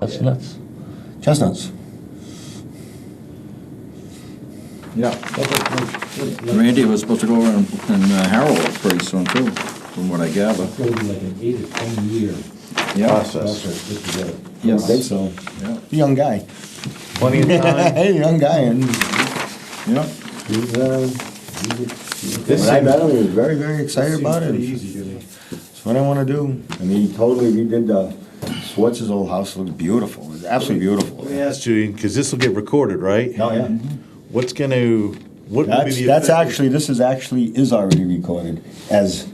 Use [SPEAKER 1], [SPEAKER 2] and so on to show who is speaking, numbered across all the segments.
[SPEAKER 1] That's nuts.
[SPEAKER 2] Chestnuts.
[SPEAKER 3] Yeah.
[SPEAKER 2] Randy was supposed to go over and and, uh, Harold pretty soon too, from what I gather.
[SPEAKER 3] It's gonna be like an eight or ten year
[SPEAKER 4] Process.
[SPEAKER 3] process to get together.
[SPEAKER 2] Yes.
[SPEAKER 4] Think so.
[SPEAKER 2] Yeah. Young guy.
[SPEAKER 1] Plenty of time.
[SPEAKER 2] Hey, young guy, and, yeah.
[SPEAKER 3] He's, uh, he's a-
[SPEAKER 4] This
[SPEAKER 2] But I
[SPEAKER 4] seems-
[SPEAKER 2] met him, he was very, very excited about it.
[SPEAKER 4] Seems pretty easy to me.
[SPEAKER 2] It's what I wanna do. And he totally redid the, Schwartz's old house looked beautiful, it was absolutely beautiful.
[SPEAKER 4] Let me ask you, because this will get recorded, right?
[SPEAKER 2] Oh, yeah.
[SPEAKER 4] What's gonna, what will be
[SPEAKER 2] That's,
[SPEAKER 4] the?
[SPEAKER 2] that's
[SPEAKER 4] effect-
[SPEAKER 2] actually, this is actually, is already recorded as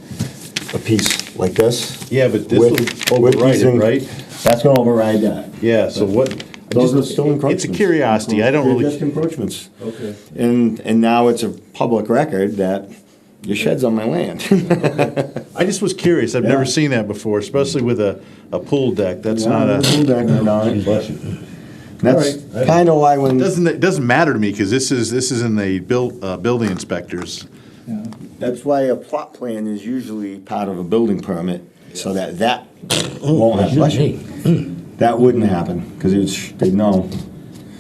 [SPEAKER 2] a piece like this.
[SPEAKER 4] Yeah, but this
[SPEAKER 2] With-
[SPEAKER 4] will
[SPEAKER 2] with
[SPEAKER 4] override
[SPEAKER 2] these
[SPEAKER 4] it,
[SPEAKER 2] in-
[SPEAKER 4] right?
[SPEAKER 2] That's gonna override that.
[SPEAKER 4] Yeah, so what?
[SPEAKER 2] Those are still encroachments.
[SPEAKER 4] It's a curiosity, I don't
[SPEAKER 2] They're
[SPEAKER 4] really.
[SPEAKER 2] just encroachments.
[SPEAKER 4] Okay.
[SPEAKER 2] And, and now it's a public record that your shed's on my land.
[SPEAKER 4] I just was curious. I've
[SPEAKER 2] Yeah.
[SPEAKER 4] never seen that before, especially with a, a pool deck. That's not
[SPEAKER 2] Little
[SPEAKER 4] a.
[SPEAKER 2] deck and all that. That's
[SPEAKER 4] Alright.
[SPEAKER 2] kinda why when,
[SPEAKER 4] Doesn't it doesn't matter to me because this is this is in the build uh, building inspectors.
[SPEAKER 2] that's why a plot plan is usually part of a building permit, so that that won't happen. Bless you. That wouldn't happen, cause it's, they know.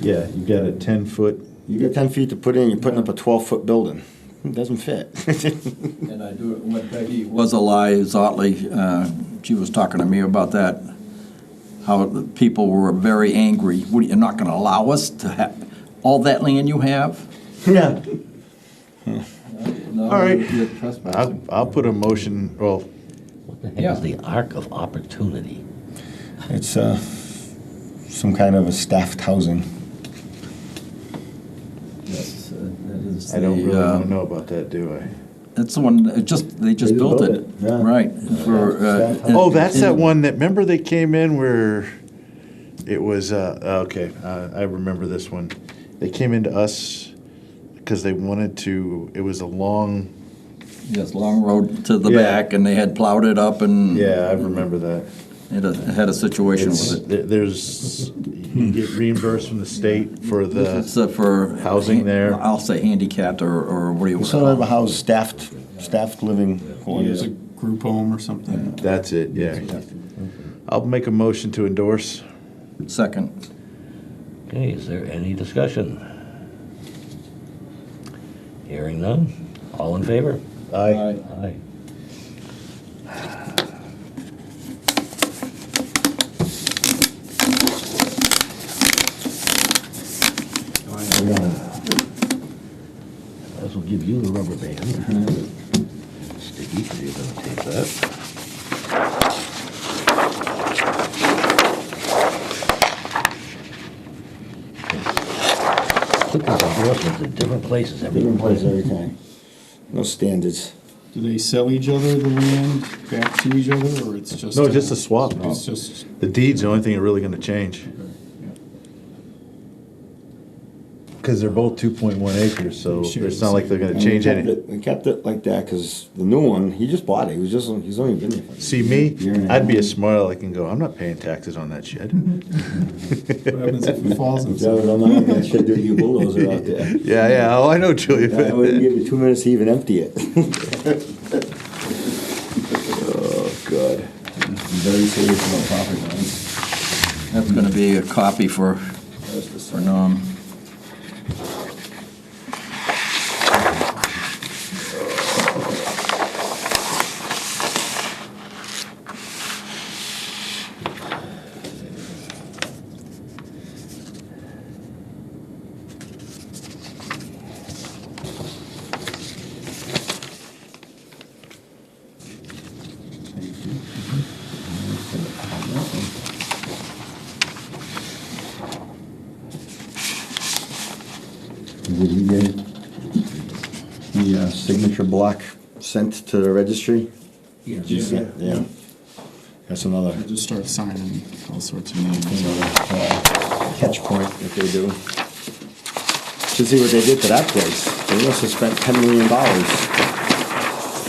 [SPEAKER 4] Yeah, you got a ten foot.
[SPEAKER 2] You get ten feet to put in, you're putting up a twelve-foot building. It doesn't fit.
[SPEAKER 5] And I do, when Peggy was alive, Zotley, uh, she was talking to me about that, how the people were very angry. What, you're not gonna allow us to have all that land you have?
[SPEAKER 2] Yeah.
[SPEAKER 5] All
[SPEAKER 4] right.
[SPEAKER 5] You're trespassing.
[SPEAKER 4] I'll, I'll put a motion. Well,
[SPEAKER 1] What the heck is the arc of opportunity?
[SPEAKER 2] It's, uh, some kind of a staffed housing.
[SPEAKER 5] That's, uh, that is
[SPEAKER 4] I don't
[SPEAKER 5] the,
[SPEAKER 4] really
[SPEAKER 5] uh,
[SPEAKER 4] want to know about that, do I?
[SPEAKER 5] That's the one, it just, they just
[SPEAKER 2] They
[SPEAKER 5] built
[SPEAKER 2] built
[SPEAKER 5] it,
[SPEAKER 2] it, yeah.
[SPEAKER 5] right. for, uh,
[SPEAKER 4] Oh, that's that
[SPEAKER 5] in-
[SPEAKER 4] one that. Remember they came in where it was. Uh, okay, uh, I remember this one. They came into us because they wanted to. It was a long.
[SPEAKER 5] Yes, long road to the
[SPEAKER 4] Yeah.
[SPEAKER 5] back, and they had plowed it up and.
[SPEAKER 4] Yeah, I remember that.
[SPEAKER 5] Had a, had a situation
[SPEAKER 4] It's,
[SPEAKER 5] with it.
[SPEAKER 4] there- there's you get reimbursed from the state for
[SPEAKER 5] It's
[SPEAKER 4] the
[SPEAKER 5] uh, for.
[SPEAKER 4] housing there.
[SPEAKER 5] I'll say handicapped or, or what do you want to
[SPEAKER 2] Sort of
[SPEAKER 5] call
[SPEAKER 2] a
[SPEAKER 5] it?
[SPEAKER 2] house staffed, staffed living quarters.
[SPEAKER 6] group home or something.
[SPEAKER 4] that's it yeah i'll make a motion to endorse
[SPEAKER 5] Second.
[SPEAKER 1] Okay, is there any discussion? Hearing none, all in favor?
[SPEAKER 4] aye
[SPEAKER 1] Aye. This will give you the rubber band. Sticky, so you're gonna take that. Put these endorsements in different places every
[SPEAKER 2] Different place every time. No standards.
[SPEAKER 6] Do they sell each other the land back to each other, or it's just?
[SPEAKER 4] No, just a swap.
[SPEAKER 6] It's just,
[SPEAKER 4] the deed's the only thing really going to change because they're both 2.1 acres so it's not like they're going to change
[SPEAKER 2] And we
[SPEAKER 4] any
[SPEAKER 2] kept it- We kept it like that, cause the new one, he just bought it, he was just, he's only been there. for-
[SPEAKER 4] see me
[SPEAKER 2] Year and a
[SPEAKER 4] i'd be
[SPEAKER 2] half.
[SPEAKER 4] a smart aleck and go i'm not paying taxes on that shit
[SPEAKER 6] what happens if it falls on
[SPEAKER 2] Yeah, I
[SPEAKER 6] something?
[SPEAKER 2] don't know, that shit do you bulldozer out there.
[SPEAKER 4] yeah yeah oh i know julia
[SPEAKER 2] I wouldn't give you two minutes to even empty it.
[SPEAKER 4] oh god
[SPEAKER 2] Very serious about property lines.
[SPEAKER 5] That's gonna be a copy for, for Norm.
[SPEAKER 2] Did he get the uh, signature block sent to the registry?
[SPEAKER 6] Yeah.
[SPEAKER 2] Yeah. That's another
[SPEAKER 6] I just start signing all sorts of names.
[SPEAKER 2] another, uh, catch point that they do. Should see what they did to that place. They must have spent ten million dollars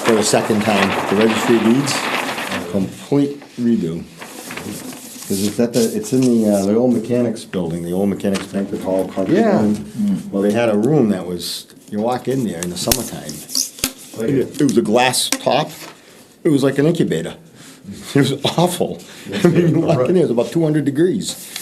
[SPEAKER 2] for the second time. The registry of deeds, complete redo. Because it's at the, it's in the, uh, the old mechanics building, the old mechanics banquet hall. conference
[SPEAKER 4] Yeah.
[SPEAKER 2] room. Well, they had a room that was, you walk in there in the summertime. It was a glass top. It was like an incubator. It was awful. I mean, you walk in there, it's about two hundred degrees.